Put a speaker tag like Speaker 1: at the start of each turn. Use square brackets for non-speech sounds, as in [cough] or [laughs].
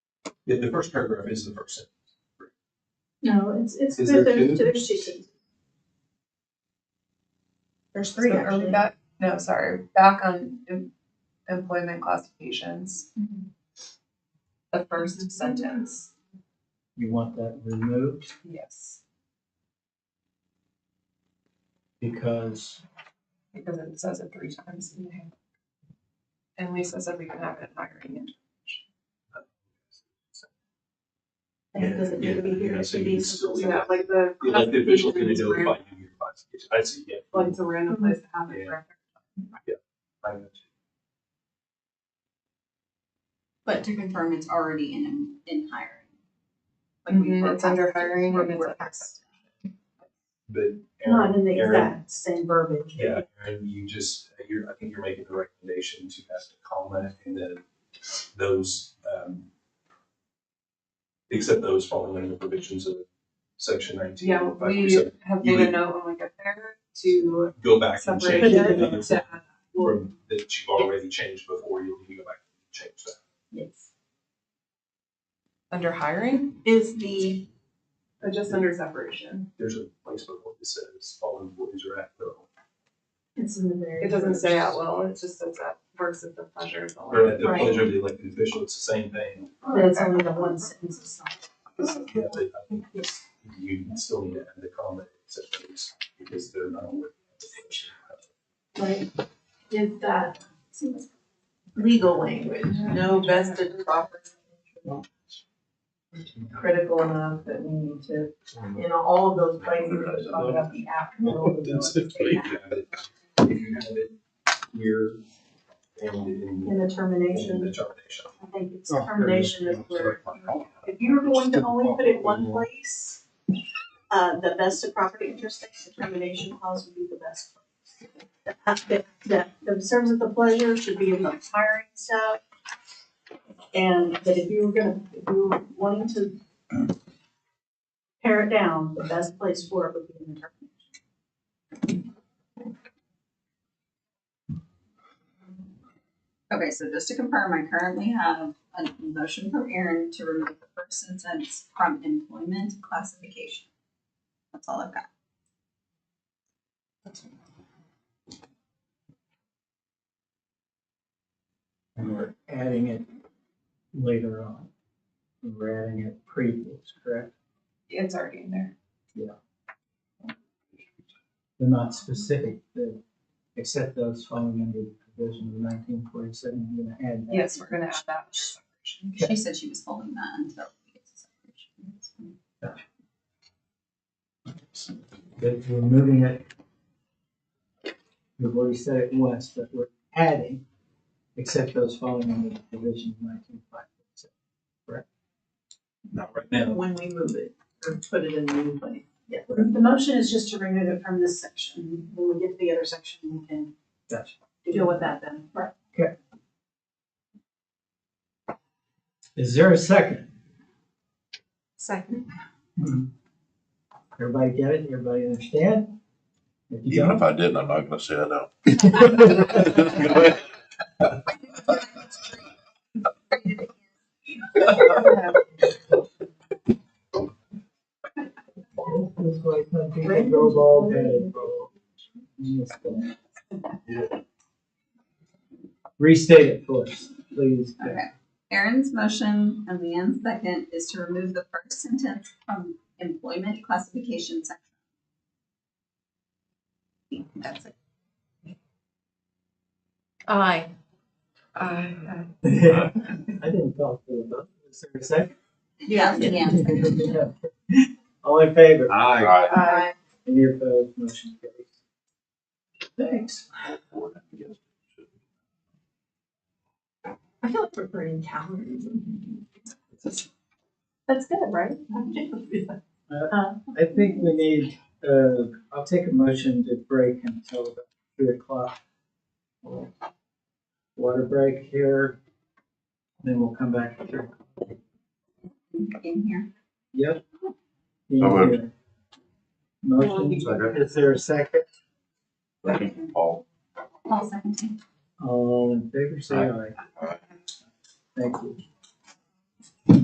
Speaker 1: The, the first paragraph is the first sentence.
Speaker 2: No, it's, it's,
Speaker 3: Is
Speaker 2: there's,
Speaker 3: there two?
Speaker 2: there's there's two sentences.
Speaker 4: There's three,
Speaker 5: So are we
Speaker 4: actually.
Speaker 5: back, no, sorry, back on em- employment classifications, the first sentence,
Speaker 6: You want that removed
Speaker 5: yes,
Speaker 6: because
Speaker 5: because it says it three times in the handbook. And Lisa said we can have it in hiring and
Speaker 4: Like, it doesn't need to be here,
Speaker 1: Yeah, yeah,
Speaker 4: it
Speaker 1: so
Speaker 4: should
Speaker 1: you
Speaker 4: be
Speaker 1: can still
Speaker 4: something
Speaker 1: do
Speaker 4: else.
Speaker 1: that.
Speaker 5: like the.
Speaker 1: The elected official's gonna do it
Speaker 5: classifications
Speaker 1: by
Speaker 5: were-
Speaker 1: union classification. I see, yeah.
Speaker 5: Like it's a random place to have it
Speaker 1: Yeah.
Speaker 5: for.
Speaker 1: I know.
Speaker 4: But to confirm, it's already in, in hiring. Like we
Speaker 5: Mhm,
Speaker 4: were
Speaker 5: it's under
Speaker 4: past-
Speaker 5: hiring
Speaker 4: we're-
Speaker 5: and
Speaker 4: we're
Speaker 5: it's.
Speaker 4: past-
Speaker 1: But
Speaker 2: Not in
Speaker 1: Aaron,
Speaker 2: the
Speaker 1: Aaron,
Speaker 2: exact same verbiage.
Speaker 1: yeah, Aaron, you just, you're, I think you're making the recommendation to pass a comma and then those, um, except those following under the provisions of section nineteen.
Speaker 5: Yeah, we
Speaker 1: 547.
Speaker 5: have
Speaker 1: You
Speaker 5: made a
Speaker 1: would-
Speaker 5: note when we get there to
Speaker 1: Go back and
Speaker 5: separate
Speaker 1: change
Speaker 2: it
Speaker 1: it
Speaker 5: it to add
Speaker 1: from, that you've already changed before. You'll need to go back and change that.
Speaker 4: Yes.
Speaker 5: under hiring,
Speaker 4: Is the,
Speaker 5: or just under separation.
Speaker 1: There's a place before that says all employees are at will.
Speaker 2: It's in the very.
Speaker 5: It doesn't say at will, it just says that works at the pleasure of the.
Speaker 1: Or at the
Speaker 2: Right.
Speaker 1: pleasure of the elected official, it's the same thing.
Speaker 2: But it's only the one sentence of something.
Speaker 1: Yeah, but I think it's, you still need to add the comment except those, because they're not with.
Speaker 2: Like, is that
Speaker 4: legal language, no vested property
Speaker 2: critical enough that we need to, in all of those places, we talk about the afternoon.
Speaker 1: If you have it here and in
Speaker 2: In the
Speaker 1: in
Speaker 2: termination,
Speaker 1: the termination.
Speaker 2: I think it's
Speaker 3: Oh, there it is.
Speaker 2: termination is where,
Speaker 4: If you were going to only put it one place, uh, the vested property interest thing, the termination clause would be the best. place. The, the, the serves at the pleasure should be in the hiring stuff. And, but if you were gonna, if you were wanting to pare it down, the best place for it would be in the termination.
Speaker 7: Okay, so just to confirm, I currently have a motion from Aaron to remove the first sentence from employment classification. That's all I've got.
Speaker 6: and we're adding it later on. We're adding it previous, correct?
Speaker 5: It's already in there.
Speaker 6: They're not specific, they- except those falling under the provision of nineteen forty-seven, I'm gonna add that.
Speaker 5: Yes, we're gonna add that.
Speaker 7: She said she was holding that until we get to separation.
Speaker 6: That we're moving it. We've already said it once, but we're adding, except those falling under the provision of nineteen forty-seven.
Speaker 1: Not right now.
Speaker 4: When we move it, or put it in the new place.
Speaker 2: yeah, the motion is just to remove it from this section. When we get to the other section, we can
Speaker 6: Gotcha.
Speaker 2: deal with that then. Right.
Speaker 6: Is there a second? Hmm.
Speaker 5: Second.
Speaker 6: Everybody get it? Everybody understand? If you
Speaker 3: Even
Speaker 6: don't,
Speaker 3: if I didn't, I'm not gonna say I don't.
Speaker 6: This is why some people go bald headed, bro. Restate it for us, please. Jeff.
Speaker 7: [laughs] Okay. Aaron's motion and Leanne's second is to remove the first sentence from employment classification section. That's it.
Speaker 5: Aye. Aye.
Speaker 6: I didn't talk to them. Is there a second?
Speaker 7: Yeah. Leanne's second.
Speaker 6: [laughs] All in favor?
Speaker 3: Aye.
Speaker 5: Aye.
Speaker 6: Any opposed? Motion carries. Thanks.
Speaker 2: I feel like we're burning calories. That's good, right?
Speaker 6: I think we need, uh, I'll take a motion to break until about three o'clock. Water break here. Then we'll come back at three.
Speaker 7: In here.
Speaker 6: Yep.
Speaker 3: So moved.
Speaker 6: Motion, is there a second?
Speaker 3: Paul.
Speaker 7: Paul seconded.
Speaker 6: All in favor, say aye. Thank you.